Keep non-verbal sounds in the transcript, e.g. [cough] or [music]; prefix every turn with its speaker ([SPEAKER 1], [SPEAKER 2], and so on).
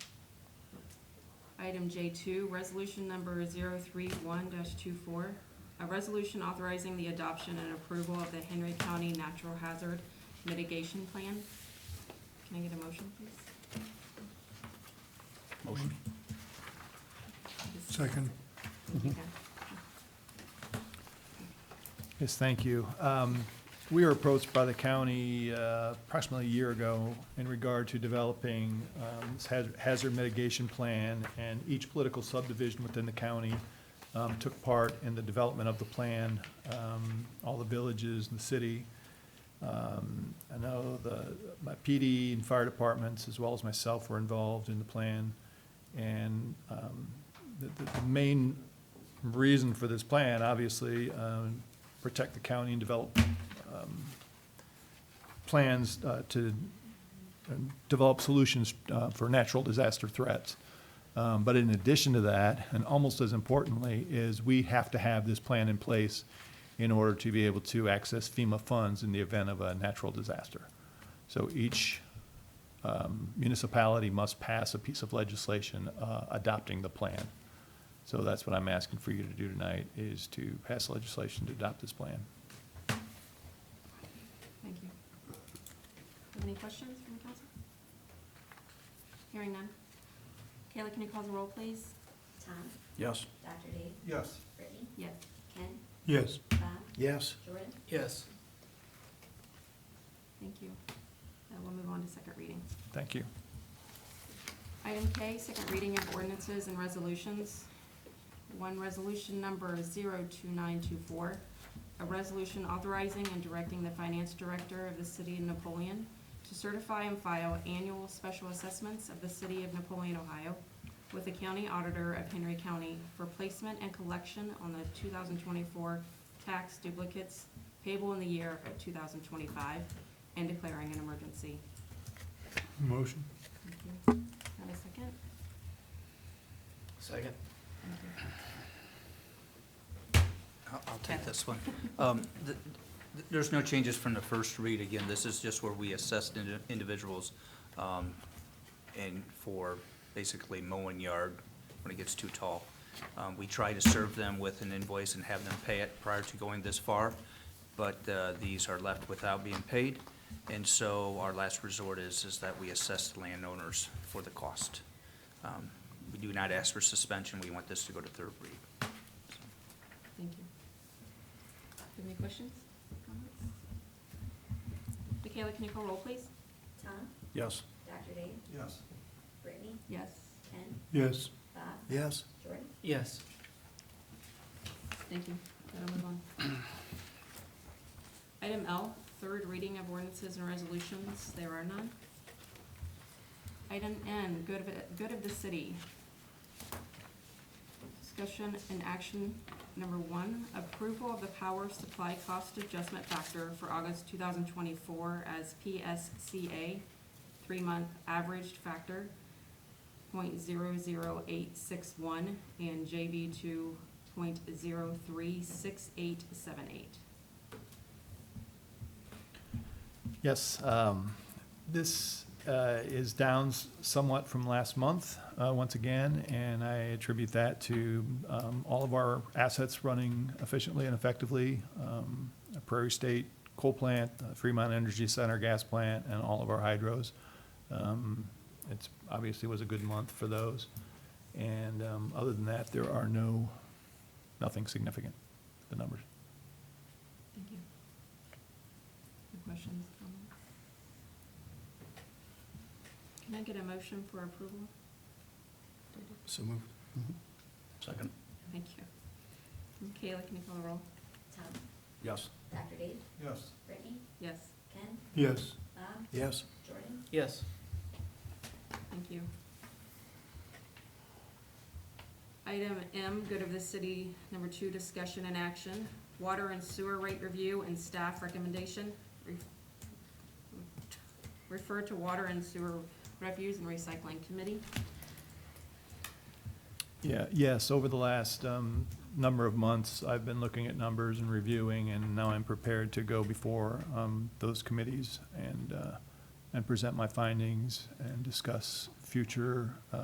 [SPEAKER 1] Item J2, resolution number 031-24, a resolution authorizing the adoption and approval of the Henry County Natural Hazard Mitigation Plan. Can I get a motion, please?
[SPEAKER 2] Motion.
[SPEAKER 3] Second.
[SPEAKER 1] Okay.
[SPEAKER 2] Yes, thank you. Um, We were approached by the county uh, approximately a year ago in regard to developing um, this haz- hazard mitigation plan, and each political subdivision within the county um, took part in the development of the plan, um, all the villages and the city. Um, I know the, my PD and fire departments, as well as myself, were involved in the plan. And um, the, the- the main reason for this plan, obviously, um, protect the county and develop um, plans uh, to um, develop solutions uh, for natural disaster threats. Um, But in addition to that, and almost as importantly, is we have to have this plan in place in order to be able to access FEMA funds in the event of a natural disaster. So each um, municipality must pass a piece of legislation uh, adopting the plan. So that's what I'm asking for you to do tonight, is to pass legislation to adopt this plan.
[SPEAKER 1] Thank you. Have any questions from the council? Hearing none. Kayla, can you call the roll, please?
[SPEAKER 4] Tom,
[SPEAKER 5] Yes.
[SPEAKER 4] Dr. Dave,
[SPEAKER 3] Yes.
[SPEAKER 4] Brittany,
[SPEAKER 1] Yes.
[SPEAKER 4] Ken,
[SPEAKER 3] Yes.
[SPEAKER 4] Bob,
[SPEAKER 5] Yes.
[SPEAKER 4] Jordan,
[SPEAKER 5] Yes.
[SPEAKER 1] Thank you. Uh, We'll move on to second reading.
[SPEAKER 2] Thank you.
[SPEAKER 1] Item K, second reading of ordinances and resolutions. One, resolution number 02924, a resolution authorizing and directing the finance director of the city of Napoleon to certify and file annual special assessments of the city of Napoleon, Ohio, with the county auditor of Henry County for placement and collection on the 2024 tax duplicates payable in the year of 2025 and declaring an emergency.
[SPEAKER 3] Motion.
[SPEAKER 1] Thank you. Have a second?
[SPEAKER 5] Second.
[SPEAKER 1] Thank you.
[SPEAKER 6] I'll I'll take this one. Um, th- th- There's no changes from the first read. Again, this is just where we assessed indi- individuals um, and for basically mowing yard when it gets too tall. Um, We try to serve them with an invoice and have them pay it prior to going this far, but uh, these are left without being paid. And so our last resort is, is that we assess the landowners for the cost. Um, We do not ask for suspension. We want this to go to third read.
[SPEAKER 1] Thank you. Have any questions? comments? Michaela, can you call roll, please?
[SPEAKER 4] Tom,
[SPEAKER 5] Yes.
[SPEAKER 4] Dr. Dave,
[SPEAKER 3] Yes.
[SPEAKER 4] Brittany,
[SPEAKER 1] Yes.
[SPEAKER 4] Ken,
[SPEAKER 3] Yes.
[SPEAKER 4] Bob,
[SPEAKER 5] Yes.
[SPEAKER 4] Jordan,
[SPEAKER 5] Yes.
[SPEAKER 1] Thank you. That'll move on. [clears throat] Item L, third reading of ordinances and resolutions. There are none. Item N, good of, good of the city. Discussion and action number one, approval of the power supply cost adjustment factor for August two thousand twenty-four as PSCA, three-month averaged factor, point zero zero eight six one, and JV two point zero three six eight seven eight.
[SPEAKER 2] Yes, um, this uh, is down s- somewhat from last month, uh, once again, and I attribute that to um, all of our assets running efficiently and effectively. um, Prairie State Coal Plant, uh, Fremont Energy Center Gas Plant, and all of our hydros. Um, It's, obviously was a good month for those. And um, other than that, there are no, nothing significant, the numbers.
[SPEAKER 1] Thank you. Any questions, comments? Can I get a motion for approval?
[SPEAKER 3] So moved.
[SPEAKER 5] Second.
[SPEAKER 1] Thank you. Kayla, can you call the roll?
[SPEAKER 4] Tom,
[SPEAKER 5] Yes.
[SPEAKER 4] Dr. Dave,
[SPEAKER 3] Yes.
[SPEAKER 4] Brittany,
[SPEAKER 1] Yes,
[SPEAKER 4] Ken,
[SPEAKER 3] Yes.
[SPEAKER 4] Bob,
[SPEAKER 3] Yes.
[SPEAKER 4] Jordan,
[SPEAKER 5] Yes.
[SPEAKER 1] thank you. Item M, good of the city, number two, discussion and action, water and sewer rate review and staff recommendation. Re- Refer to water and sewer refuse and recycling committee.
[SPEAKER 2] Yeah, yes, over the last um, number of months, I've been looking at numbers and reviewing, and now I'm prepared to go before um, those committees and, uh, and present my findings and discuss future uh,